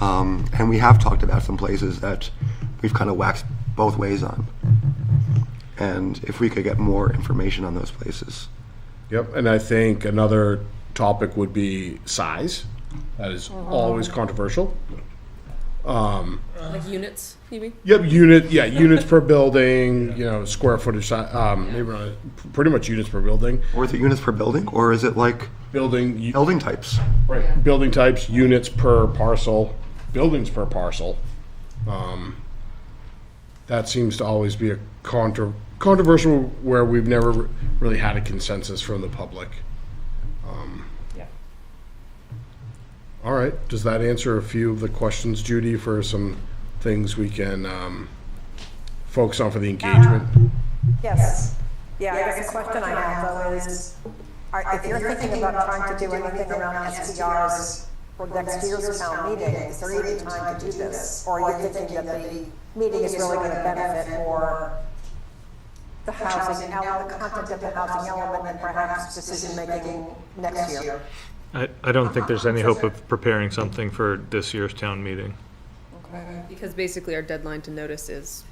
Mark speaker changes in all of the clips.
Speaker 1: Um, and we have talked about some places that we've kind of waxed both ways on. And if we could get more information on those places.
Speaker 2: Yep, and I think another topic would be size. That is always controversial. Um,
Speaker 3: Like units, you mean?
Speaker 2: Yep, unit, yeah, units per building, you know, square footage, si- um, maybe not, pretty much units per building.
Speaker 1: Or is it units per building, or is it like
Speaker 2: Building, u-
Speaker 1: building types?
Speaker 2: right, building types, units per parcel, buildings per parcel. Um, That seems to always be a contra, controversial where we've never really had a consensus from the public. Um,
Speaker 4: Yeah.
Speaker 2: All right, does that answer a few of the questions, Judy, for some things we can um, focus on for the engagement?
Speaker 5: Yes. Yeah, I guess the question I have though is, are- if you're thinking about trying to do anything around STRs for next year's town meeting, is there even time to do this? Or are you thinking that the meeting is really gonna benefit for the housing, el- the content of the housing element and perhaps decision-making next year?
Speaker 6: I, I don't think there's any hope of preparing something for this year's town meeting.
Speaker 3: Because basically our deadline to notice is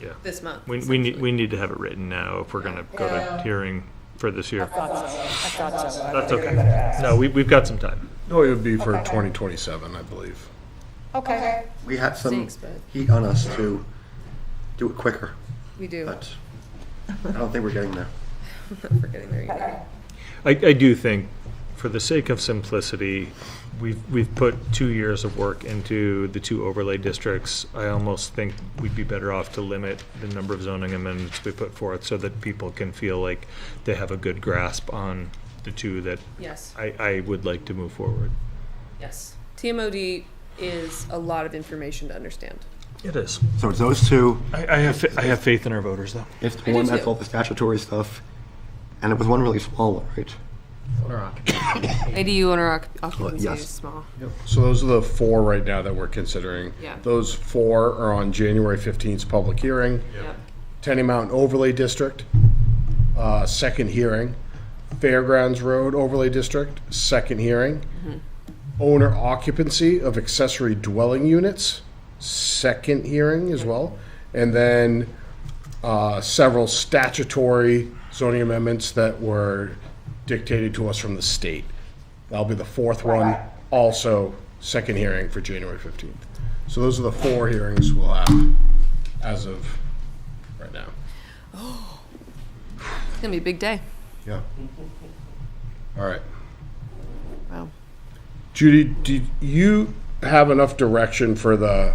Speaker 6: Yeah.
Speaker 3: this month.
Speaker 6: We, we need, we need to have it written now if we're gonna go to hearing for this year.
Speaker 4: Thought so.
Speaker 6: That's okay. No, we, we've got some time.
Speaker 2: No, it would be for 2027, I believe.
Speaker 4: Okay.
Speaker 1: We had some
Speaker 3: Thanks, bud.
Speaker 1: heat on us to do it quicker,
Speaker 3: We do.
Speaker 6: Uh,
Speaker 1: but I don't think we're getting there.
Speaker 3: We're getting there. yeah.
Speaker 6: I, I do think, for the sake of simplicity, we've, we've put two years of work into the two overlay districts. I almost think we'd be better off to limit the number of zoning amendments we put forth so that people can feel like they have a good grasp on the two that
Speaker 3: Yes,
Speaker 6: I, I would like to move forward.
Speaker 3: yes. TMOD is a lot of information to understand.
Speaker 6: It is.
Speaker 1: So it's those two,
Speaker 6: I, I have, fa- I have faith in our voters, though.
Speaker 1: it's the
Speaker 3: I do
Speaker 1: one that's
Speaker 3: too.
Speaker 1: all the statutory stuff, and it was one really small one, right?
Speaker 3: ADU owner
Speaker 1: occupancy
Speaker 3: occupancy
Speaker 1: yes.
Speaker 3: is
Speaker 1: is
Speaker 3: small.
Speaker 2: So those are the four right now that we're considering.
Speaker 3: Yeah.
Speaker 2: Those four are on January 15th's public hearing. Tenny Mountain Overlay District, uh, second hearing. Fairgrounds Road Overlay District, second hearing. Owner occupancy of accessory dwelling units, second hearing as well. And then uh, several statutory zoning amendments that were dictated to us from the state. That'll be the fourth one, also second hearing for January 15th. So those are the four hearings we'll have as of right now.
Speaker 3: It's gonna be a big day.
Speaker 2: Yeah. All right.
Speaker 3: Wow.
Speaker 2: Judy, did you have enough direction for the,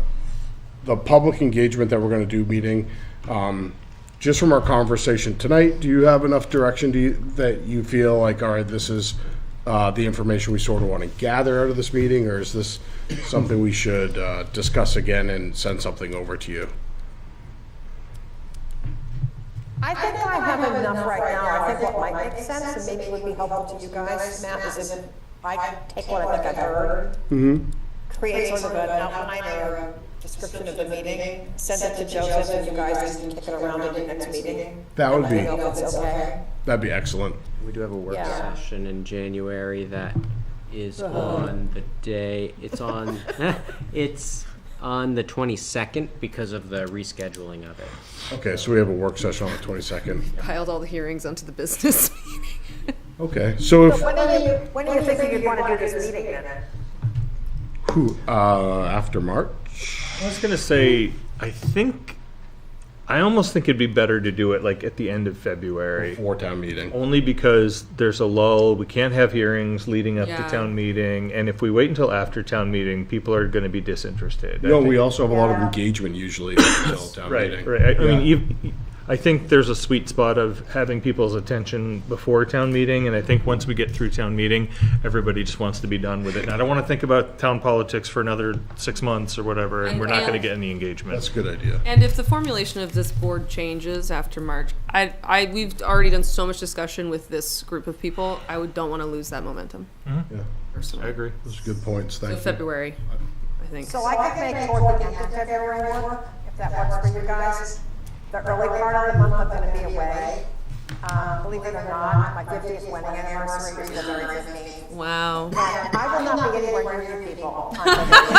Speaker 2: the public engagement that we're gonna do meeting? Um, just from our conversation tonight, do you have enough direction do you, that you feel like, all right, this is, uh, the information we sort of wanna gather out of this meeting? Or is this something we should, uh, discuss again and send something over to you?
Speaker 5: I think I have enough right now. I think what might make sense and maybe would be helpful to you guys, Matt, is if I take what I think I've heard.
Speaker 2: Mm-hmm.
Speaker 5: Create sort of an outline or a description of the meeting, send it to Joseph and you guys can kick it around at the next meeting.
Speaker 2: That would
Speaker 5: I
Speaker 2: be,
Speaker 5: don't know if it's okay.
Speaker 2: that'd be excellent.
Speaker 7: We do have a work
Speaker 5: Yeah.
Speaker 7: session in January that is on the day, it's on, it's on the twenty-second because of the rescheduling of it.
Speaker 2: Okay, so we have a work session on the twenty-second.
Speaker 3: Piled all the hearings onto the business meeting.
Speaker 2: Okay, so if,
Speaker 5: When do you, when do you think you'd want to do this meeting then?
Speaker 2: who, uh, after March?
Speaker 6: I was gonna say, I think, I almost think it'd be better to do it like at the end of February.
Speaker 2: Before town meeting.
Speaker 6: Only because there's a lull, we can't have hearings leading up to
Speaker 3: Yeah.
Speaker 6: town meeting, and if we wait until after town meeting, people are gonna be disinterested. I
Speaker 2: No,
Speaker 6: think-
Speaker 2: we also have a lot of engagement usually until town
Speaker 6: Right,
Speaker 2: meeting.
Speaker 6: right, I- I
Speaker 2: Yeah.
Speaker 6: mean, you, I think there's a sweet spot of having people's attention before town meeting, and I think once we get through town meeting, everybody just wants to be done with it. And I don't wanna think about town politics for another six months or whatever, and we're not gonna get any engagement.
Speaker 2: That's a good idea.
Speaker 3: And if the formulation of this board changes after March, I, I, we've already done so much discussion with this group of people. I would, don't wanna lose that momentum.
Speaker 6: Hmm.
Speaker 2: Yeah,
Speaker 3: Personally.
Speaker 6: I agree.
Speaker 2: those are good points,
Speaker 3: So
Speaker 2: thank you.
Speaker 3: February, I think.
Speaker 5: So I could make toward the end of February work, if that works for you guys. The early part of the month, I'm gonna be away. Um, believe it or not, my fiftieth wedding anniversary is the very fifteenth.
Speaker 3: Wow.
Speaker 5: I will not be anywhere near you people. on February